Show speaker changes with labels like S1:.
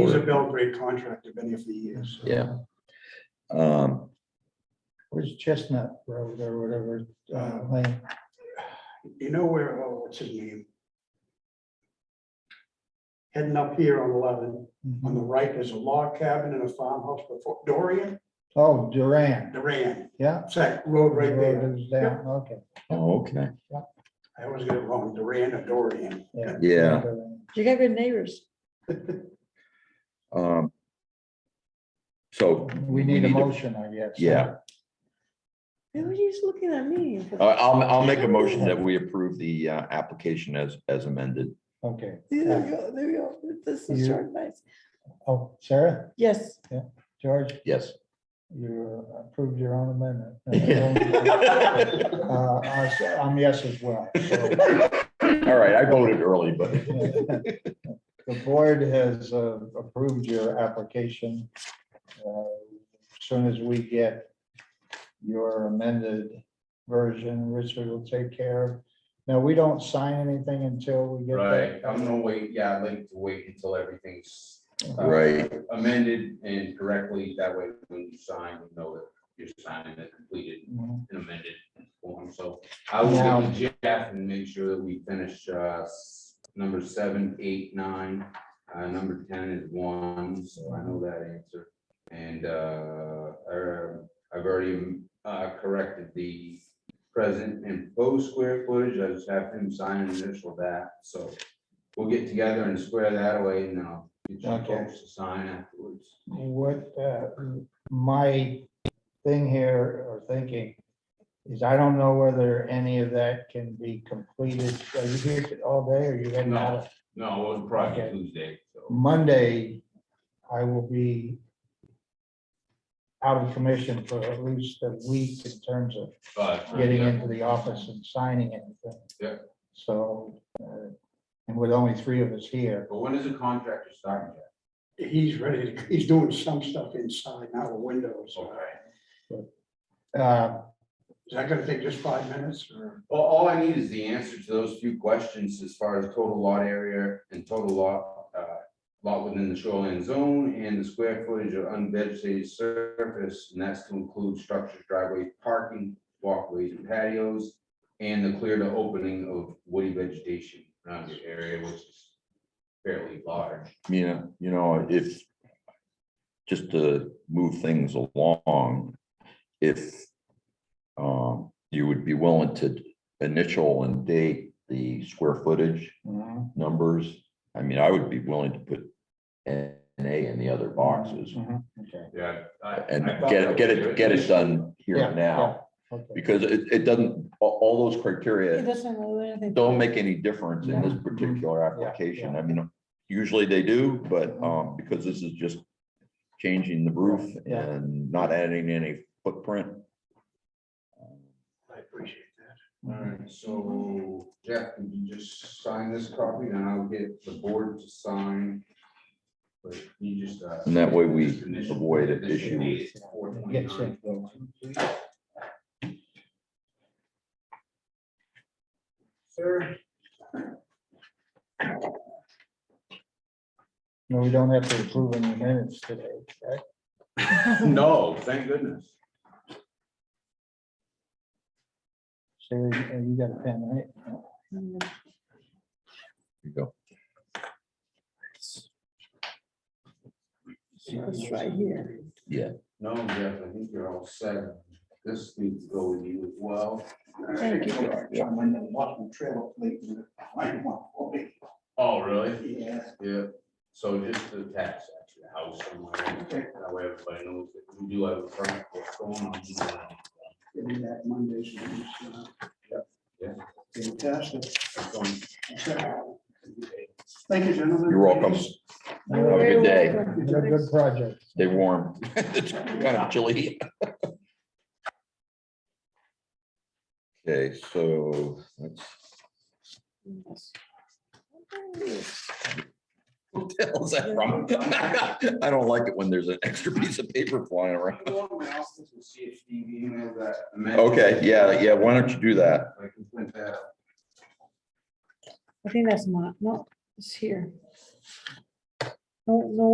S1: He's a
S2: Or-
S1: Bill Great contractor, been here for years. so.
S2: Yeah. Um,
S3: Where's Chestnut Road or whatever, uh, lane?
S1: You know where, oh, what's his name? Heading up here on eleven,
S3: Mm-hmm.
S1: on the right, there's a log cabin and a farmhouse before Dorian,
S3: Oh, Duran,
S1: Duran,
S3: yeah.
S1: it's that road right there.
S3: Road is down, Okay.
S2: oh, okay,
S1: I always get it wrong, Duran or Dorian.
S3: Yeah.
S2: yeah,
S3: Duran.
S4: You got good neighbors.
S2: um. So.
S3: We need a
S2: to-
S3: motion, I guess.
S2: Yeah.
S4: Why were you just looking at me?
S2: I- I'll, I'll make a motion that we approve the uh, application as, as amended.
S3: Okay.
S4: There we go, there we go. This is
S3: You-
S4: so nice.
S3: Oh, Sarah,
S4: Yes.
S3: George,
S2: Yes.
S3: you approved your own amendment.
S2: All
S3: Uh, I s- I'm yes as well. so.
S2: right, I voted early, but
S3: The board has uh, approved your application. Uh, As Soon as we get your amended version, Richard will take care of. Now, we don't sign anything until we get
S5: Right,
S3: that.
S5: I'm gonna wait, yeah, I'd like to wait until everything's uh,
S2: Right.
S5: amended and correctly, that way when you sign, you know that you're signing a completed
S3: Mhm.
S5: and amended form, so I will
S3: Now-
S5: get with Jeff and make sure that we finish uh, s- number seven, eight, nine. Uh, number ten is one, so I know that answer. And uh, er, I've already uh, corrected the present and post square footage, I just have him sign and initial that, so we'll get together and square that away, and then I'll get you
S3: Okay.
S5: folks to sign afterwards.
S3: What uh, my thing here or thinking is I don't know whether any of that can be completed. Are you here all day or you heading out? of-
S5: No, it'll
S3: probably
S5: probably
S3: be
S5: Tuesday, so.
S3: Monday, I will be out of commission for at least a week in terms of getting
S5: uh,
S3: into the office and signing anything.
S5: Yeah.
S3: So, uh, and with only three of us here,
S5: But when is the contractor starting? Jeff?
S1: He's ready, to- he's doing some stuff inside now, the windows.
S3: uh,
S1: Is that gonna take just five minutes or?
S5: Well, all I need is the answer to those few questions as far as total lot area and total lot, uh, lot within the shoreline zone and the square footage of unvegetated surface, and that's to include structures, driveways, parking, walkways, and patios, and the clear to opening of woody vegetation around the area, which is fairly large.
S2: you know, you know, if, just to move things along, if um, you would be willing to initial and date the square footage
S3: mhm,
S2: numbers, I mean, I would be willing to put an A in the other boxes
S3: mhm, okay,
S5: Yeah.
S2: and get, get it, get it done here and now,
S3: okay.
S2: because it, it doesn't, all, all those criteria
S4: It doesn't really do anything.
S2: don't make any difference in this
S3: Mm-hmm. Yeah. Mm-hmm.
S2: particular application. I mean, usually they do, but um, because this is just changing the roof
S3: Yeah.
S2: and not adding any footprint. Um,
S1: I appreciate that.
S5: All right, so Jeff, can you just sign this copy and I'll get the board to sign? But you just. uh,
S2: And that way we
S5: just initial-
S2: avoid an
S5: initial
S2: issue.
S5: date is 4/29.
S3: Get sent over.
S5: Sir,
S3: No, we don't have to approve any minutes today, correct?
S5: no, thank goodness.
S3: Sarah, uh, you got a pen, right?
S2: You go.
S4: It's right here.
S5: No, Jeff, I think you're all set. This needs to go with you as well.
S4: Thank you.
S1: I'm in the bottom trail late. I'm not-
S5: Oh, really?
S1: Yeah.
S5: Yeah, so just to attach that to the house somewhere, that way everybody knows that we do have a front, what's going on.
S1: Give me that Monday. so it's, uh,
S5: Yeah.
S1: Fantastic.
S5: That's on
S1: Thank you, gentlemen.
S2: You're welcome. Have a good day.
S3: It's a good project.
S2: Stay warm. It's kind of chilly. Okay, so that's, what the hell is that from? I don't like it when there's an extra piece of paper flying around.
S5: Go to my office and see if Steve emailed that.
S2: Okay, yeah, yeah, why don't you do that?
S5: I can print that out.
S4: I think that's not, no, it's here. No, no